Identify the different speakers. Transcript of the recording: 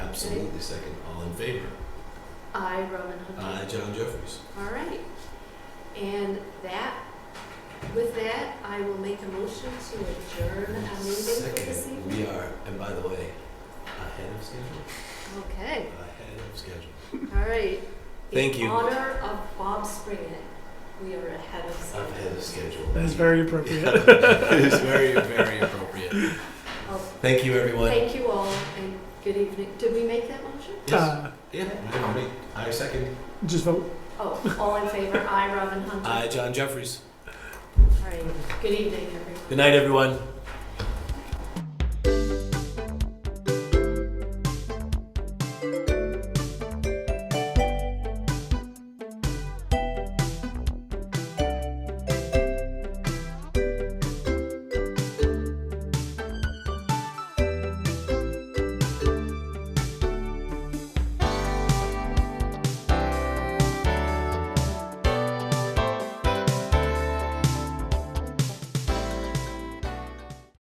Speaker 1: Absolutely second. All in favor?
Speaker 2: I, Roman
Speaker 1: I,
Speaker 2: Hunter.
Speaker 1: John Jeffries.
Speaker 2: All right. And that, with that, I will make a motion to adjourn our meeting for this
Speaker 1: Second.
Speaker 2: evening.
Speaker 1: We are, and by the way, ahead of schedule.
Speaker 2: Okay,
Speaker 1: Ahead of schedule.
Speaker 2: all right.
Speaker 1: Thank you.
Speaker 2: In honor of Bob Springett, we are ahead of schedule.
Speaker 1: Ahead of schedule.
Speaker 3: That is very appropriate.
Speaker 1: it is very, very appropriate.
Speaker 2: Oh,
Speaker 1: Thank you, everyone.
Speaker 2: Thank you all and good evening. Did we make that motion?
Speaker 1: yes.
Speaker 3: Uh,
Speaker 1: Yeah, I agree. I second.
Speaker 3: just vote.
Speaker 2: Oh, all in favor, I, Robin Hunter.
Speaker 1: I, Uh, John Jeffries.
Speaker 2: All right, good evening, everyone.
Speaker 1: Good night, everyone.